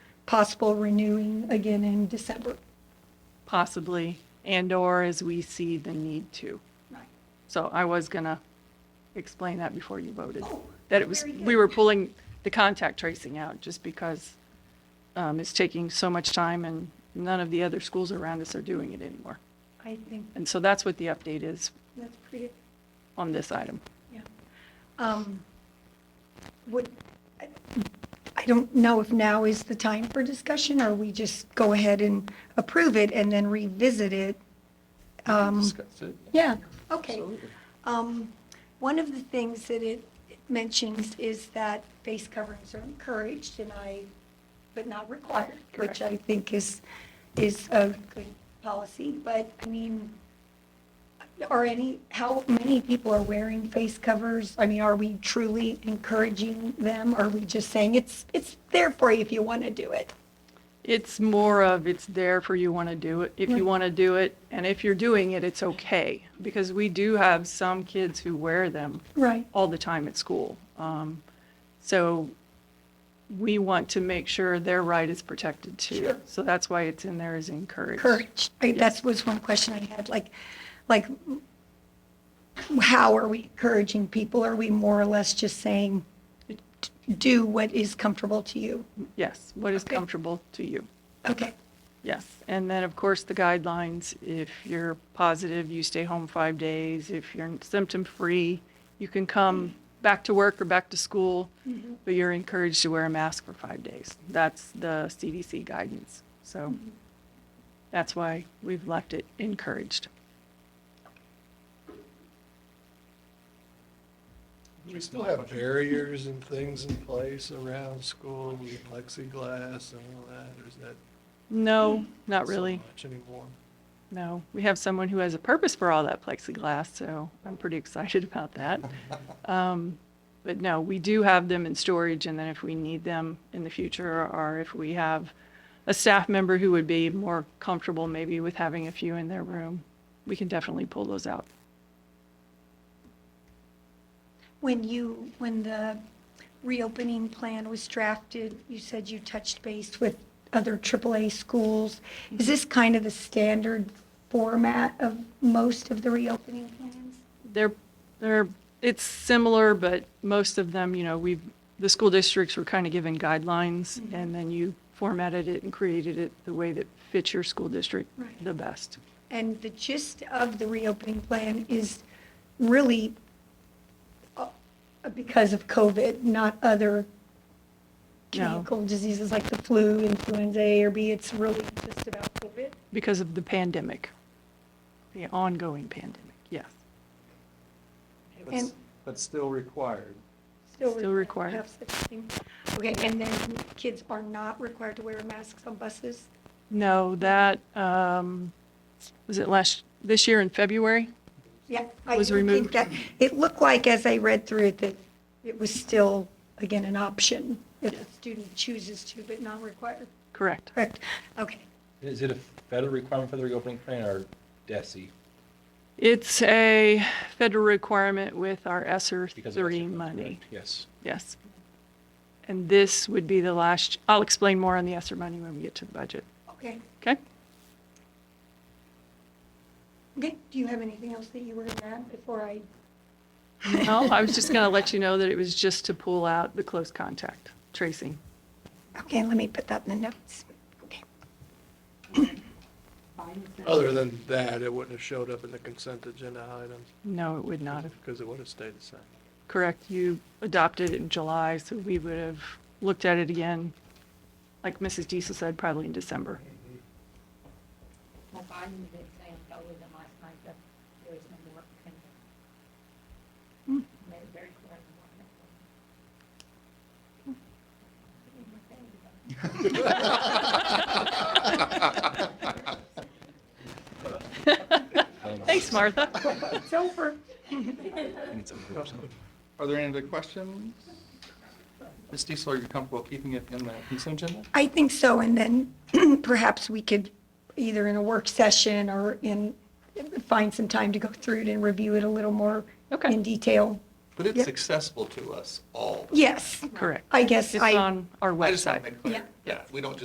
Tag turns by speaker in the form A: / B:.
A: possible renewing again in December.
B: possibly, and/or as we see the need to. So I was gonna explain that before you voted.
A: Oh,
B: That it was,
A: very
B: we
A: good.
B: were pulling the contact tracing out just because um, it's taking so much time and none of the other schools around us are doing it anymore.
A: I think
B: And so that's what the update is
A: that's pretty,
B: on this item.
A: yeah. Um, Would, I- I don't know if now is the time for discussion, or we just go ahead and approve it and then revisit it. Um,
C: Discuss it.
A: Yeah, okay.
C: Absolutely.
A: Um, One of the things that it it mentions is that face coverings are encouraged and I, but not required, which
B: Correct.
A: I think is, is a good policy, but I mean, are any, how many people are wearing face covers? I mean, are we truly encouraging them? Are we just saying it's, it's there for you if you want to do it?
B: It's more of, it's there for you want to do it, if
A: Right.
B: you want to do it, and if you're doing it, it's okay. Because we do have some kids who wear them
A: Right.
B: all the time at school. Um, So we want to make sure their right is protected too.
A: Sure.
B: So that's why it's in there as encouraged.
A: Encouraged. I- That was one question I had, like, like, how are we encouraging people? Are we more or less just saying, do what is comfortable to you?
B: Yes, what is
A: Okay.
B: comfortable to you.
A: Okay,
B: Yes, and then, of course, the guidelines, if you're positive, you stay home five days, if you're symptom-free, you can come back to work or back to school,
A: Mm-hmm.
B: but you're encouraged to wear a mask for five days. That's the CDC guidance, so
A: Mm-hmm.
B: that's why we've left it encouraged.
C: We still have barriers and things in place around school, with plexiglass and all that, or is that?
B: No, not
C: so
B: really,
C: Much anymore.
B: no. We have someone who has a purpose for all that plexiglass, so I'm pretty excited about that. Um, But no, we do have them in storage, and then if we need them in the future, or if we have a staff member who would be more comfortable maybe with having a few in their room, we can definitely pull those out.
A: when you, when the reopening plan was drafted, you said you touched base with other AAA schools. Is this kind of the standard format of most of the reopening plans?
B: They're, they're, it's similar, but most of them, you know, we've, the school districts were kind of given guidelines, and then you formatted it and created it the way that fits your school district
A: Right.
B: the best.
A: And the gist of the reopening plan is really uh, because of COVID, not other
B: No.
A: communicable diseases like the flu, influenza A or B. It's really just about COVID.
B: because of the pandemic, the ongoing pandemic, yes.
A: And-
C: But still required.
B: Still required.
A: have such a thing. Okay, and then kids are not required to wear masks on buses?
B: No, that, um, was it last, this year in February?
A: Yeah. I
B: Was
A: do think
B: removed.
A: that- It looked like, as I read through it, that it was still, again, an option if the student chooses to, but not required.
B: Correct.
A: Correct, okay.
D: Is it a federal requirement for the reopening plan or DESI?
B: It's a federal requirement with our ESSER
D: Because of
B: three
D: SRF,
B: money,
D: correct? Yes.
B: yes. And this would be the last, I'll explain more on the ESSER money when we get to the budget,
A: Okay,
B: okay?
A: okay, do you have anything else that you were gonna add before I?
B: No, I was just going to let you know that it was just to pull out the close contact tracing.
A: Okay, let me put that in the notes. Okay,
C: Other than that, it wouldn't have showed up in the consent agenda items,
B: No, it would not have
C: because it would have stayed the same.
B: Correct, you adopted it in July, so we would have looked at it again, like Mrs. Diesel said, probably in December.
E: My body was saying, I told them last night that there was no more. Made it very clear. in the morning.
B: Thanks, Martha.
A: it's over.
F: Are there any other questions? Ms. Diesel, are you comfortable keeping it in the consent agenda?
A: I think so, and then perhaps we could, either in a work session or in, find some time to go through it and review it a little more
B: Okay.
A: in detail.
F: But
A: Yep.
F: it's accessible to us all.
A: Yes,
B: Correct.
A: I guess
B: It's
A: I.
B: on our
F: I just want to
B: website.
F: make clear,
A: Yeah.
F: yeah, we don't just